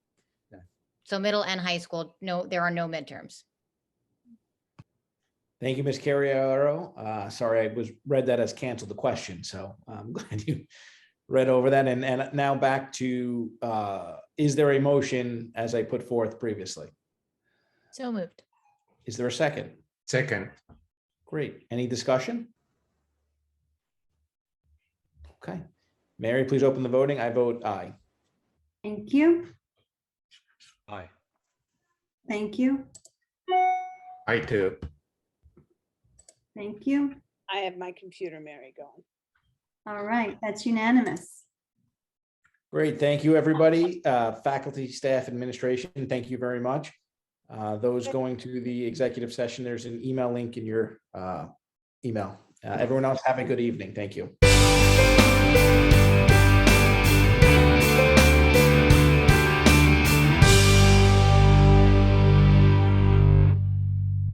So middle and high school, no, there are no midterms. Thank you, Ms. Carriero. Uh, sorry, I was read that as canceled the question, so I'm glad you read over that. And, and now back to, uh, is there a motion as I put forth previously? So moved. Is there a second? Second, Great. Any discussion? Okay. Mary, please open the voting. I vote aye. Thank you. Aye. Thank you. I too. Thank you. I have my computer, Mary, going. All right, that's unanimous. Great. Thank you, everybody. Uh, Faculty, staff, administration, thank you very much. Uh, Those going to the executive session, there's an email link in your uh, email. Uh, Everyone else, have a good evening. Thank you.